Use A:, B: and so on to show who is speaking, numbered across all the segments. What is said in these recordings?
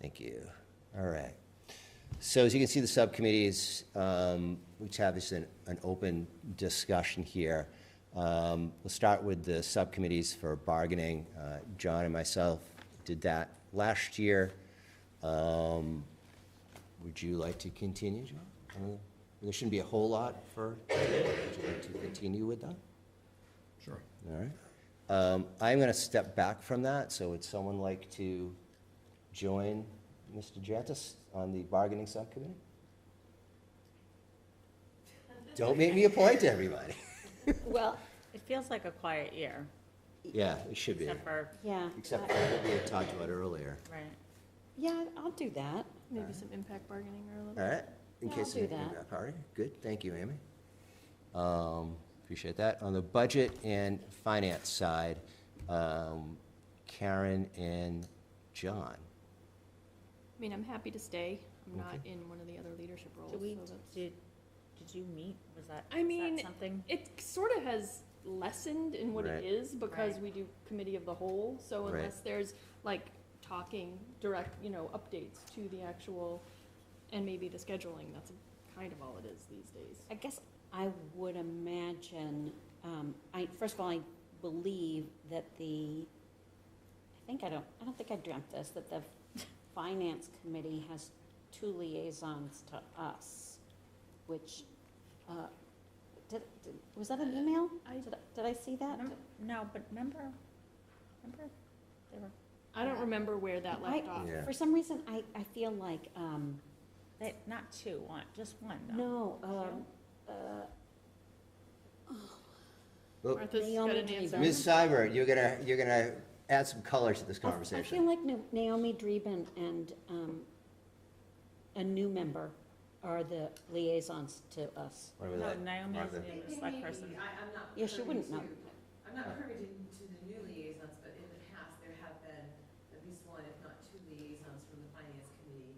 A: Thank you. All right. So as you can see, the subcommittees, um, which have this an, an open discussion here. Um, We'll start with the subcommittees for bargaining. Uh, John and myself did that last year. Um, Would you like to continue, John? I don't know. There shouldn't be a whole lot for, would you like to continue with that?
B: Sure.
A: All right. Um, I'm going to step back from that, so would someone like to join Mr. Jantis on the bargaining subcommittee? Don't make me appoint everybody.
C: Well,
D: It feels like a quiet year,
A: Yeah, it should be,
D: except for,
C: yeah.
A: except
C: I-
A: for what we had talked about earlier.
D: right,
C: Yeah, I'll do that.
A: All
E: Maybe
A: right.
E: some impact bargaining or a little.
A: All right, in
C: Yeah, I'll
A: case of
C: do
A: any
C: that.
A: feedback. All right, good, thank you, Amy. Um, Appreciate that. On the budget and finance side, um, Karen and John.
E: I mean, I'm happy to stay. I'm not
A: Okay.
E: in one of the other leadership roles.
D: did we,
E: so that's-
D: did, did you meet, was that,
E: I
D: was
E: mean,
D: that something?
E: it sort of has lessened in what
A: Right.
E: it is because
D: Right.
E: we do committee of the whole. So
A: Right.
E: unless there's like talking direct, you know, updates to the actual and maybe the scheduling, that's kind of all it is these days.
C: I guess I would imagine, um, I, first of all, I believe that the, I think I don't, I don't think I dreamt this, that the finance committee has two liaisons to us, which, uh, did, did- was that an email?
E: I-
C: Did I- Did I see that?
D: No, No, but remember, remember, they were,
E: I don't
D: Yeah.
E: remember where that
C: I-
E: left off.
A: Yeah.
C: For some reason, I, I feel like, um,
D: they, not two, one, just one, though.
C: no, um, uh,
A: Well,
E: Martha's got
C: Naomi
E: an
C: Dave.
E: answer.
A: Ms. Seibert, you're gonna, you're gonna add some color to this
C: Oh, I- I
A: conversation.
C: feel like Na- Naomi Dreeben and um, a new member are the liaisons to us.
A: What about
D: No,
A: that?
D: Naomi is
A: Martha?
D: the
F: It-
D: only
F: it
D: select
F: may be.
D: person.
F: I, I'm not.
C: Yeah, she
F: privy
C: wouldn't know.
F: to- I'm not privy to, to the new liaisons, but in the past, there have been at least one, if not two liaisons from the finance committee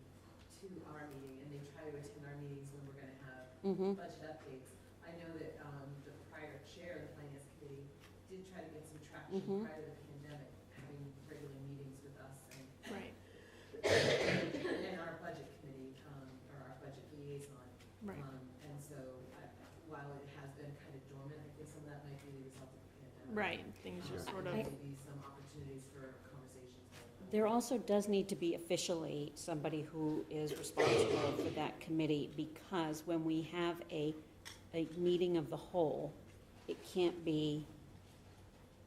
F: to our meeting, and they try to attend our meetings when we're gonna have
C: Mm-hmm.
F: budget updates. I know that, um, the prior chair of the finance committee did try to get some traction
C: Mhm.
F: prior to the pandemic, having regular meetings with us and,
E: Right,
F: and our budget committee, um, or our budget liaison.
E: right.
F: Um, And so, I- while it has been kind of dormant, I think some of that might be the result of the pandemic.
E: Right, things just
F: Um,
E: sort of,
F: and there may be some opportunities for conversations.
C: There also does need to be officially somebody who is responsible for that committee, because when we have a, a meeting of the whole, it can't be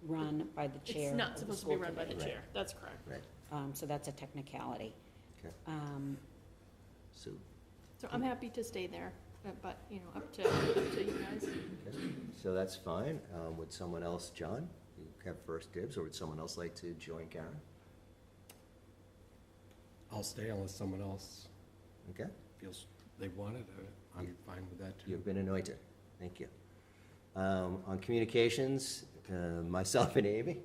C: run by the chair.
E: it's
C: of
E: not
C: the
E: supposed to
C: school
E: be run by the
C: committee.
E: chair, that's correct.
C: Um, So that's a technicality.
A: Okay.
C: Um,
A: So,
E: So I'm happy to stay there, but- but, you know, up to, up to you guys.
A: so that's fine. Um, would someone else, John, you have first dibs, or would someone else like to join Karen?
B: I'll stay unless someone else
A: Okay,
B: feels they want it. uh, I'm fine with that too.
A: you've been anointed. Thank you. Um, on communications, uh, myself and Amy,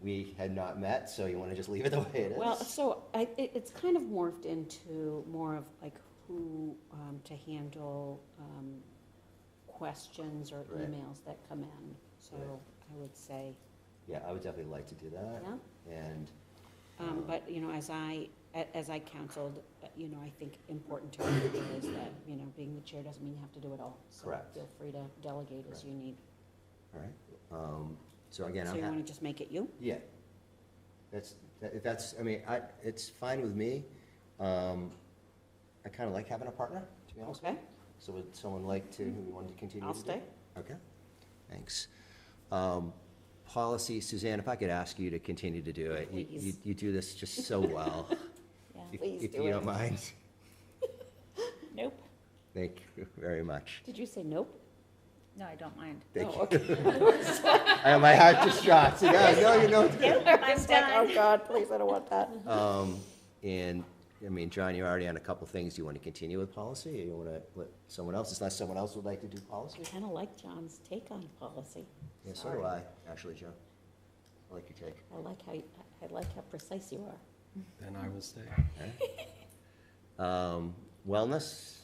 A: we had not met, so you wanna just leave it the way it is?
C: Well, so I, it, it's kind of morphed into more of like who, um, to handle, um, questions or
A: Right.
C: emails that come in. So
A: Right.
C: I would say,
A: Yeah, I would definitely like to do that,
C: yeah,
A: and,
C: um, but, you know, as I, a- as I counseled, uh, you know, I think important to remember is that, you know, being the chair doesn't mean you have to do it all. So
A: Correct.
C: Feel free to delegate as
A: Correct.
C: you need.
A: all right, um, so again,
C: So
A: I'm
C: you
A: happy.
C: wanna just make it you?
A: Yeah. That's, that- if that's, I mean, I, it's fine with me. Um, I kind of like having a partner, to be honest. with
C: Okay,
A: you. So would someone like to, who wanted to continue?
C: I'll
A: to do it?
C: stay.
A: Okay, thanks. Um, Policy, Suzanne, if I could ask you to continue to do it. You- You,
C: Please.
A: you do this just so well.
D: Yeah,
A: if-
C: Please
A: If
C: do
A: you
C: it.
A: don't mind.
D: nope,
A: Thank you very much.
C: Did you say nope?
D: no, I don't mind.
A: Thank
C: No,
A: you. I have my heart just dropped. Yeah, I know you know.
D: I'm done.
C: Oh, God, please, I don't want that.
A: Um, And, I mean, John, you're already on a couple things. Do you want to continue with policy, or you want to let someone else, unless someone else would like to do policy?
C: I kind of like John's take on policy.
A: Yeah, so do I, actually, John. I like your take.
C: I like how, you- I I like how precise you are.
B: Then I will stay.
A: Um, Wellness?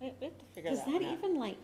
D: We we have to figure
C: Is
D: that
C: that
D: one out.
C: even like,